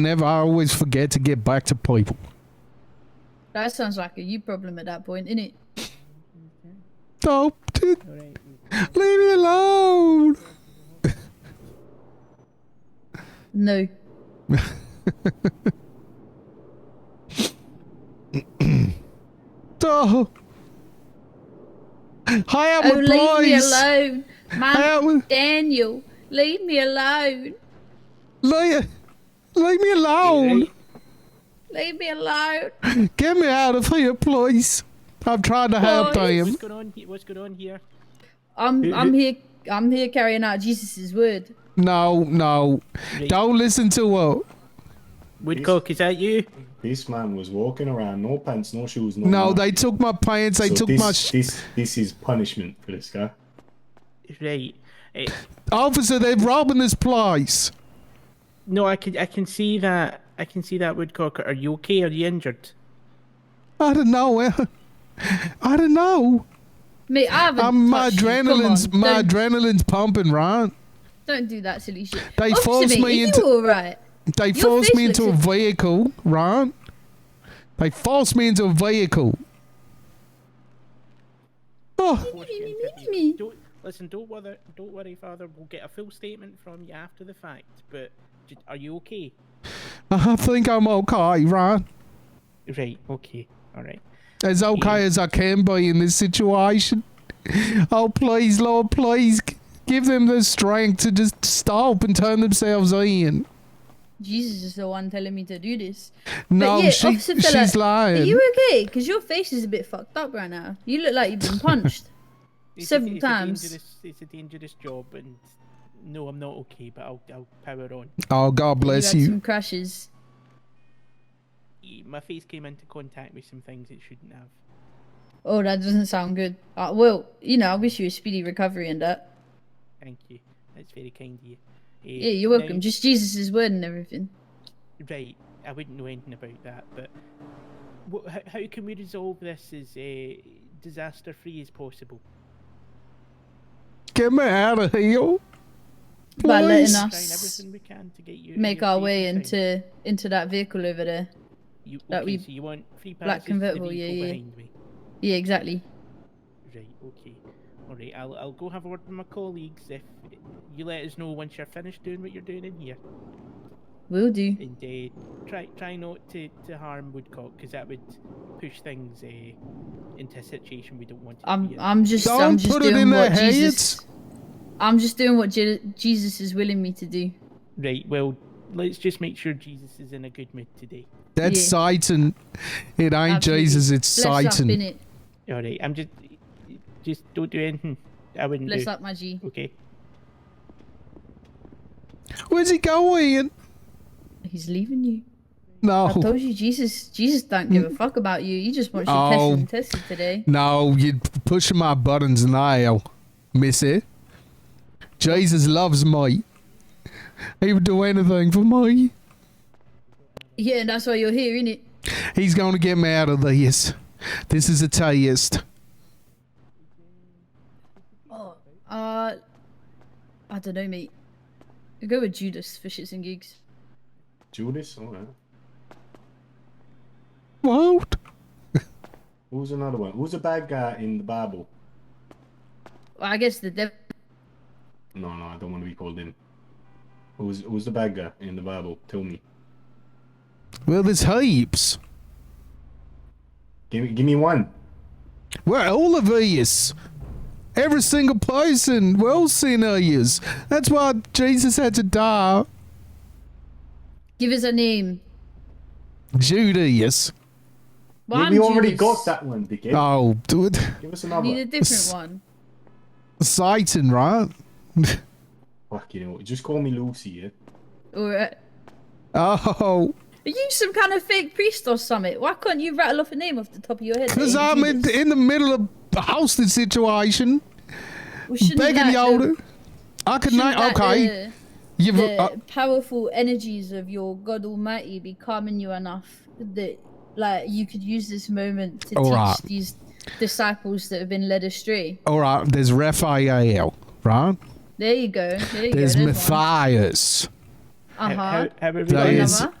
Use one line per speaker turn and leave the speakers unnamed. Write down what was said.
Never, I always forget to get back to people.
That sounds like a you problem at that point, innit?
Don't do- leave me alone.
No.
Don't. Hi, out
Oh,
with
leave me
boys.
alone.
How
Man,
would-
Daniel, leave me alone.
Leave, leave me alone.
Leave me alone.
Get me out of here, please. I'm trying to help
Boys.
him.
What's going on here? What's going on here?
I'm
Who-
I'm
who-
here I'm here carrying out Jesus' word.
No, no. Don't listen to her.
Woodcock, is that you?
This man was walking around, no pants, no shoes, no.
No,
nothing.
they took my pants. They
Mm-hmm. So
took
this,
my. Sh-
this this is punishment for this guy.
Right. Eh,
Officer, they're robbing this place.
no, I can I can see that. I can see that Woodcock. Are you okay? Are you injured?
I don't know. eh? I don't know.
Mate, I haven't
I'm, Um, my
touched you. Come on,
adrenaline's my
don't,
adrenaline's pumping, right?
don't do that silly shit.
They
Officer
forced
mate,
me
are
into-
you alright?
They
Your
forced
face
me into a
looks-
vehicle, right? They forced me into a vehicle. Oh,
me, me, me.
Don't, listen, don't worry, don't worry, Father. We'll get a full statement from you after the fact. But j- are you okay?
I think I'm okay, right?
Right. Okay. All right.
As okay as I can be in this situation. Oh, please, Lord, please g- give them the strength to just stop and turn themselves in.
Jesus is the one telling me to do this.
No,
but yeah,
she,
Officer Fella,
she's lying.
Are you okay? Because your face is a bit fucked up right now. You look like you've been punched. Several
it's a
times.
dangerous- It's a dangerous job, and no, I'm not okay. But I'll I'll power on.
Oh, God bless
you. Had
you.
some crashes.
Eh, My face came into contact with some things it shouldn't have.
Oh, that doesn't sound good. Uh, well, you know, I wish you a speedy recovery and uh, that.
Thank you. That's very kind of you. Eh,
Yeah, you're
now-
welcome. Just Jesus' word and everything.
Right, I wouldn't know anything about that, but wha how, how can we resolve this as uh, disaster free as possible?
Get me out of here.
By letting
Please.
Trying
us
everything we can to get you.
make
your
our
face
way
in time.
into into that vehicle over there.
You, okay,
that wee
so you want free
black
passes to the
convertible, yeah,
vehicle
yeah.
behind me.
Yeah, exactly.
Right, okay. Alright, I'll, I'll go have a word with my colleagues if you let us know once you're finished doing what you're doing in here.
Will do.
And uh, try try not to, to harm Woodcock, because that would push things uh, into a situation we don't want to be
I'm
in.
I'm just I'm
Don't
just
put it
doing
in their
what Jesus. I'm just doing what Je- Jesus is willing me to do.
Right, well, let's just make sure Jesus is in a good mood today.
That's
Yeah.
Satan. It ain't
Absolutely.
Jesus, it's
Bless up,
Satan.
innit?
All right, I'm just, just don't do anything. I wouldn't
Bless
do.
up, my G.
Okay.
Where's he going?
He's leaving you. I
No.
told you, Jesus. Jesus don't give a fuck about you. He just wants you
Mm. Oh.
tested and tested today.
No, you're p- pushing my buttons now, missy. Jesus loves me. He would do anything for me.
Yeah, and that's why you're here, innit?
He's going to get me out of this. This is a test.
Oh, uh, I don't know, mate. I'll go with Judas for shits and gigs.
Judas, alright.
What?
Who's another one? Who's the bad guy in the Bible?
Well, I guess the devil.
No, no, I don't want to be called him. Who's who's the bad guy in the Bible? Tell me.
Well, there's heaps.
Give me give me one.
We're all of us. Every single person. We're all sinners. That's why Jesus had to die.
Give us a name.
Judas.
Well,
we
I'm
already
Judas.
got that one, dickhead.
Oh, dude.
Give us
I
another.
need a
Fuck
different one.
Satan, right?
Fucking hell. Just call me Lucy, yeah?
Or uh,
Oh,
are you some kind of fake priest or something? Why can't you rattle off a name off the top of your head? that
because
ain't
I'm in,
Judas?
in the middle of a hostage situation.
Well, shouldn't
Begging
that,
y'all
the-
to. I could
shouldn't
not.
that
Okay.
the-
You've,
the
uh,
powerful energies of your God Almighty be calming you enough that, like, you could use this moment to
All
teach
right.
these disciples that have been led astray.
all right, there's Raphael, right?
There you go. There you
There's
go.
Matthias.
Uh
How,
huh.
how, how are
Uh-huh.
we
There
gonna-
is
another?